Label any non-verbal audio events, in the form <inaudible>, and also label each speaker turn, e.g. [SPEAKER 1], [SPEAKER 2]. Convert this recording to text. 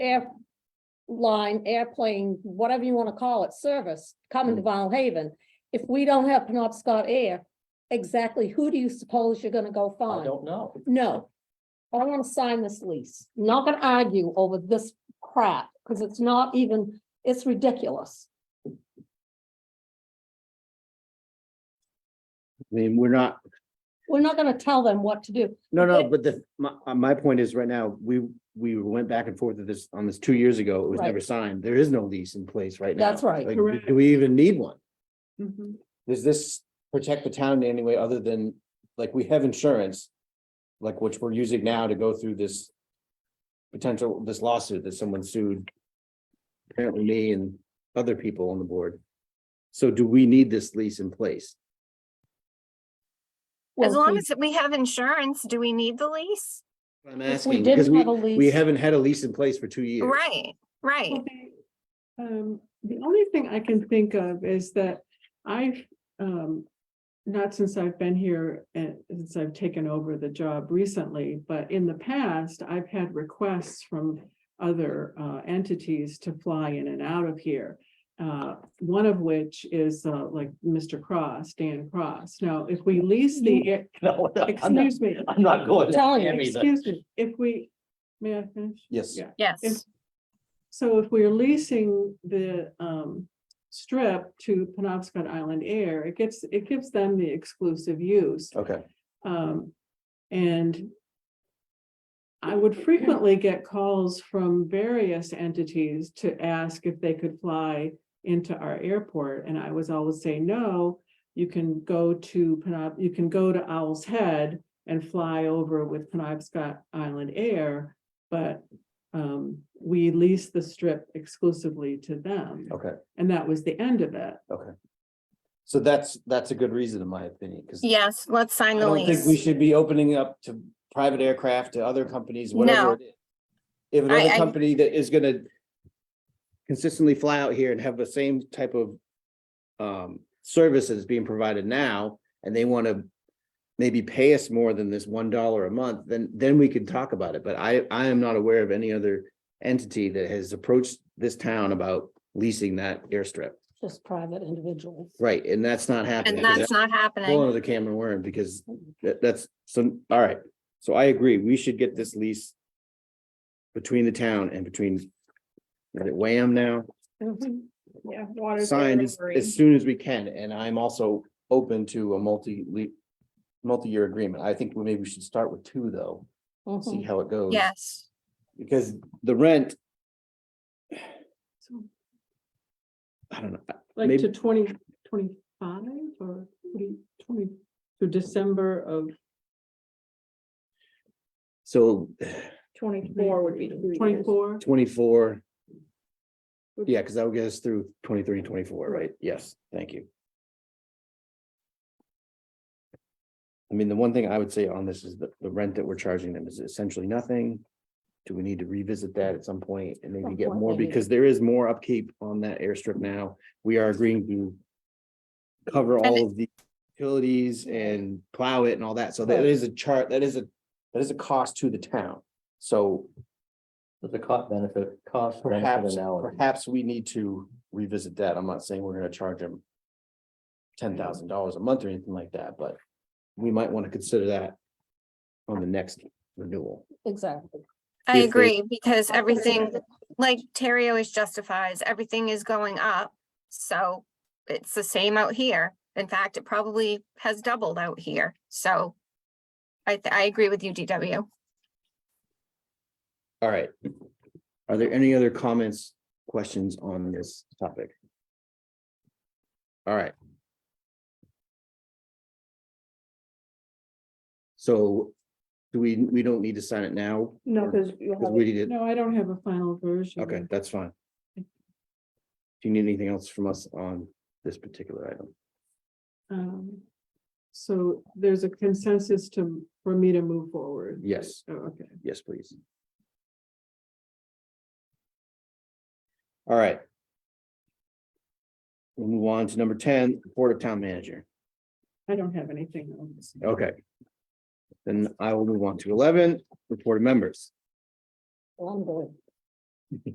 [SPEAKER 1] air line, airplane, whatever you want to call it, service coming to Vinyl Haven. If we don't have Penobscot Air, exactly who do you suppose you're gonna go
[SPEAKER 2] I
[SPEAKER 1] find?
[SPEAKER 2] don't know.
[SPEAKER 1] No. I don't want to sign this lease. Not gonna argue over this crap, because it's not even, it's ridiculous.
[SPEAKER 3] I mean, we're not,
[SPEAKER 1] We're not gonna tell them what to do.
[SPEAKER 3] no,
[SPEAKER 1] But-
[SPEAKER 3] no, but the, my, uh, my point is right now, we, we went back and forth with this, on this two years ago, it was
[SPEAKER 1] Right.
[SPEAKER 3] never signed. There is no lease in place right now.
[SPEAKER 1] That's right.
[SPEAKER 3] Like, do- do we even need one?
[SPEAKER 4] Mm-hmm.
[SPEAKER 3] Does this protect the town in any way other than, like, we have insurance? Like, which we're using now to go through this. Potential, this lawsuit that someone sued. Apparently me and other people on the board. So do we need this lease in place?
[SPEAKER 5] As
[SPEAKER 1] Well,
[SPEAKER 5] long
[SPEAKER 1] we-
[SPEAKER 5] as we have insurance, do we need the lease?
[SPEAKER 3] I'm
[SPEAKER 1] if we
[SPEAKER 3] asking,
[SPEAKER 1] didn't
[SPEAKER 3] because we,
[SPEAKER 1] have a lease-
[SPEAKER 3] we haven't had a lease in place for two years. <laughs>
[SPEAKER 5] Right, right.
[SPEAKER 6] Okay. Um, the only thing I can think of is that I've, um, not since I've been here and since I've taken over the job recently, but in the past, I've had requests from other, uh, entities to fly in and out of here. Uh, one of which is, uh, like Mr. Cross, Dan Cross. Now, if we lease the, air-
[SPEAKER 2] No, no, I'm not,
[SPEAKER 6] excuse me,
[SPEAKER 2] I'm not going. to
[SPEAKER 1] Telling you,
[SPEAKER 2] Miami, but-
[SPEAKER 6] excuse me, if we, may I finish?
[SPEAKER 3] Yes.
[SPEAKER 6] Yeah. If-
[SPEAKER 5] Yes,
[SPEAKER 6] So if we're leasing the um strip to Penobscot Island Air, it gets, it gives them the exclusive use.
[SPEAKER 3] Okay.
[SPEAKER 6] Um, and I would frequently get calls from various entities to ask if they could fly into our airport, and I was always say, no, you can go to Penob, you can go to Owl's Head and fly over with Penobscot Island Air, but um, we lease the strip exclusively to them.
[SPEAKER 3] Okay.
[SPEAKER 6] And that was the end of it.
[SPEAKER 3] So that's, that's a good reason in my opinion, because I
[SPEAKER 5] yes, let's sign the
[SPEAKER 3] don't think we
[SPEAKER 5] lease.
[SPEAKER 3] should be opening up to private aircraft to other companies, whatever
[SPEAKER 5] No.
[SPEAKER 3] it is. If
[SPEAKER 5] I-
[SPEAKER 3] another
[SPEAKER 5] I-
[SPEAKER 3] company that is gonna consistently fly out here and have the same type of um, services being provided now, and they want to maybe pay us more than this one dollar a month, then, then we could talk about it. But I, I am not aware of any other entity that has approached this town about leasing that airstrip.
[SPEAKER 1] Just private individuals.
[SPEAKER 3] Right, and that's not happening.
[SPEAKER 5] And
[SPEAKER 3] 'cause
[SPEAKER 5] that's not
[SPEAKER 3] Whole
[SPEAKER 5] happening.
[SPEAKER 3] another can of worm because that, that's some, all right, so I agree, we should get this lease. Between the town and between. Is it Wham now?
[SPEAKER 1] Mm-hmm.
[SPEAKER 6] Yeah. water.
[SPEAKER 3] Signed as, as soon as we can, and I'm also open to a multi le. Multi-year agreement, I think we maybe we should start with two though, see
[SPEAKER 1] Mhm.
[SPEAKER 3] how it goes.
[SPEAKER 5] Yes,
[SPEAKER 3] Because the rent, I don't know,
[SPEAKER 6] Like
[SPEAKER 3] Maybe-
[SPEAKER 6] to twenty twenty-five or twenty twenty, to December of
[SPEAKER 3] so
[SPEAKER 4] Twenty-four would be the three years.
[SPEAKER 6] twenty-four.
[SPEAKER 3] twenty-four. Yeah, because that would get us through 23 and 24, right? Yes, thank you. I mean, the one thing I would say on this is that the rent that we're charging them is essentially nothing. Do we need to revisit that at some point and maybe
[SPEAKER 1] Some
[SPEAKER 3] get
[SPEAKER 1] point,
[SPEAKER 3] more?
[SPEAKER 1] maybe.
[SPEAKER 3] Because there is more upkeep on that airstrip now. We are agreeing to cover all of the utilities and plow it and all that. So that
[SPEAKER 1] Right.
[SPEAKER 3] is a chart, that is a, that is a cost to the town. So
[SPEAKER 2] The cost benefit, cost benefit
[SPEAKER 3] Perhaps,
[SPEAKER 2] analysis.
[SPEAKER 3] perhaps we need to revisit that. I'm not saying we're gonna charge them ten thousand dollars a month or anything like that, but we might want to consider that on the next renewal.
[SPEAKER 1] Exactly.
[SPEAKER 5] I
[SPEAKER 3] If they-
[SPEAKER 5] agree, because everything, like Terry always justifies, everything is going up. So it's the same out here. In fact, it probably has doubled out here. So I, th- I agree with you, DW.
[SPEAKER 3] All right. Are there any other comments, questions on this topic? All right. So do we, we don't need to sign it now?
[SPEAKER 4] No,
[SPEAKER 3] Or-
[SPEAKER 4] because you
[SPEAKER 3] 'cause
[SPEAKER 4] have,
[SPEAKER 3] we
[SPEAKER 4] it-
[SPEAKER 3] did.
[SPEAKER 6] No, I don't have a final version.
[SPEAKER 3] Okay, that's fine. Do you need anything else from us on this particular item?
[SPEAKER 6] Um, So there's a consensus to, for me to move forward.
[SPEAKER 3] Yes,
[SPEAKER 6] Oh, Okay.
[SPEAKER 3] yes, please. All right. We'll move on to number ten, Board of Town Manager.
[SPEAKER 6] I don't have anything on this.
[SPEAKER 3] Okay. Then I will move on to eleven, Report of Members.
[SPEAKER 1] Well, I'm doing.